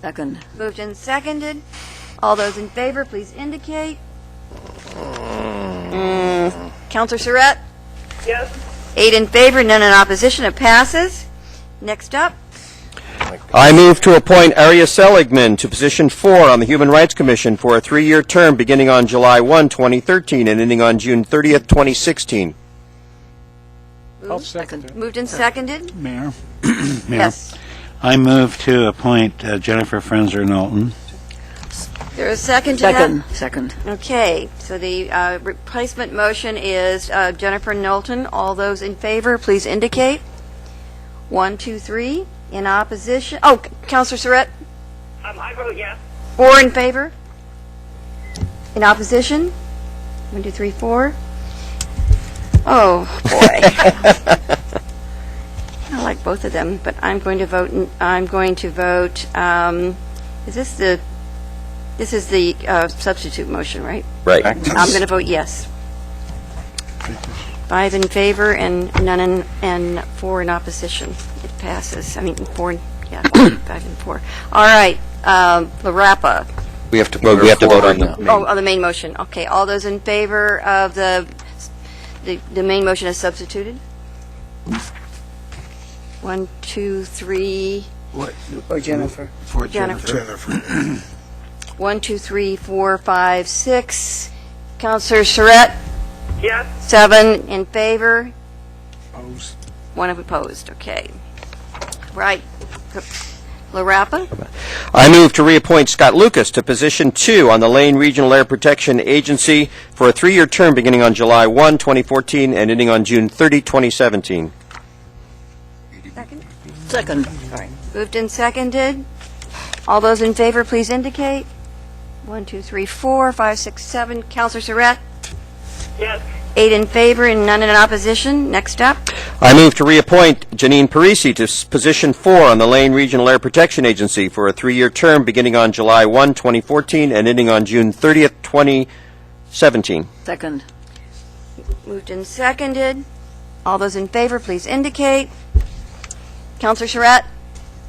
Second. Moved and seconded. All those in favor, please indicate. Counselor Surratt? Yes. Eight in favor, none in opposition, it passes. Next up, I move to appoint Arya Seligman to position four on the Human Rights Commission for a three-year term beginning on July 1, 2013, and ending on June 30th, 2016. I'll second it. moved and seconded? Mayor? Mayor? Yes. I move to appoint uh, Jennifer Frenzer Knowlton. There is a second to that? Second. Second. Okay, so the uh, replacement motion is uh, Jennifer Knowlton. All those in favor, please indicate. One, two, three. In opposition, oh, Counselor Surratt? Um, I vote yes. Four in favor? In opposition? One, two, three, four. Oh, boy. I like both of them, but I'm going to vote, n- I'm going to vote, um, is this the, this is the uh, substitute motion, right? Right. I'm going to vote yes. Five in favor and none in, and four in opposition. It passes. I mean, four, in- yeah, five and four. All right, um, LaRapa. We have to Well, vote we have to vote on on that. the- Oh, on the main motion, okay. All those in favor of the, the, the main motion as substituted? One, two, three, Or Jennifer. For Jennifer. one, two, three, four, five, six. Counselor Surratt? Yes. Seven in favor? Opposed. One opposed, okay. Right. LaRapa? I move to reappoint Scott Lucas to position two on the Lane Regional Air Protection Agency for a three-year term beginning on July 1, 2014, and ending on June 30, 2017. Second. Second. Moved and seconded. All those in favor, please indicate. One, two, three, four, five, six, seven. Counselor Surratt? Yes. Eight in favor and none in opposition. Next up. I move to reappoint Janine Parisi to s- position four on the Lane Regional Air Protection Agency for a three-year term beginning on July 1, 2014, and ending on June 30th, 2017. Second. Moved and seconded. All those in favor, please indicate. Counselor Surratt?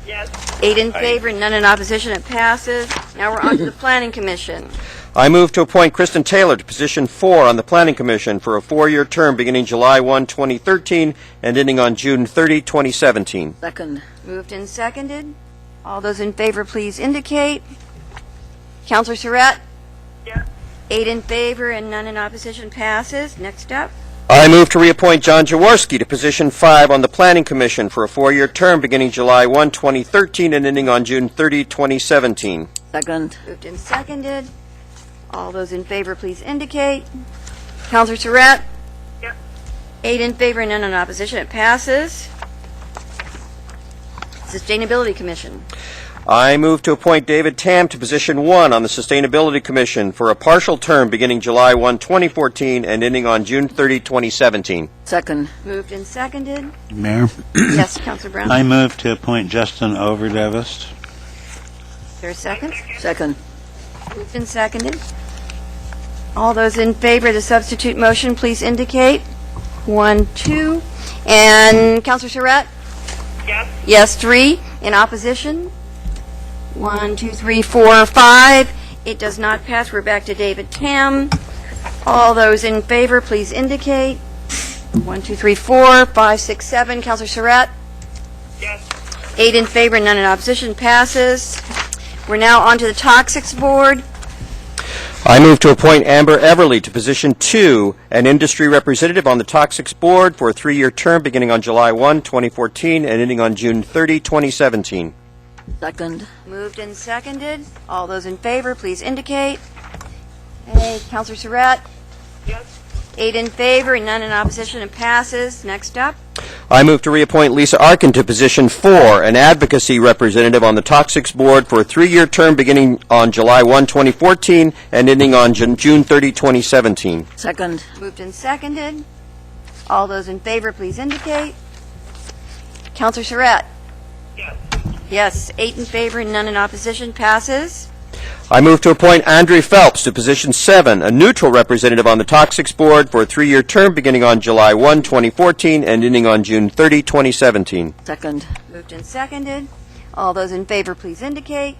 Yes. Eight in favor and none in opposition. It passes. Now we're on to the Planning Commission. I move to appoint Kristen Taylor to position four on the Planning Commission for a four-year term beginning July 1, 2013, and ending on June 30, 2017. Second. Moved and seconded. All those in favor, please indicate. Counselor Surratt? Yes. Eight in favor and none in opposition passes. Next up. I move to reappoint John Jaworski to position five on the Planning Commission for a four-year term beginning July 1, 2013, and ending on June 30, 2017. Second. Moved and seconded. All those in favor, please indicate. Counselor Surratt? Yes. Eight in favor and none in opposition. It passes. Sustainability Commission. I move to appoint David Tam to position one on the Sustainability Commission for a partial term beginning July 1, 2014, and ending on June 30, 2017. Second. Moved and seconded. Mayor? Yes, Counselor Brown? I move to appoint Justin Overdevis. Is there a second? Second. Moved and seconded. All those in favor of the substitute motion, please indicate. One, two. And Counselor Surratt? Yes. Yes, three. In opposition? One, two, three, four, five. It does not pass. We're back to David Tam. All those in favor, please indicate. One, two, three, four, five, six, seven. Counselor Surratt? Yes. Eight in favor, none in opposition, passes. We're now on to the Toxics Board. I move to appoint Amber Everly to position two, an industry representative on the Toxics Board for a three-year term beginning on July 1, 2014, and ending on June 30, 2017. Second. Moved and seconded. All those in favor, please indicate. Hey, Counselor Surratt? Yes. Eight in favor and none in opposition, it passes. Next up. I move to reappoint Lisa Arkin to position four, an advocacy representative on the Toxics Board for a three-year term beginning on July 1, 2014, and ending on Jun- June 30, 2017. Second. Moved and seconded. All those in favor, please indicate. Counselor Surratt? Yes. Yes, eight in favor and none in opposition, passes. I move to appoint Andre Phelps to position seven, a neutral representative on the Toxics Board for a three-year term beginning on July 1, 2014, and ending on June 30, 2017. Second. Moved and seconded. All those in favor, please indicate.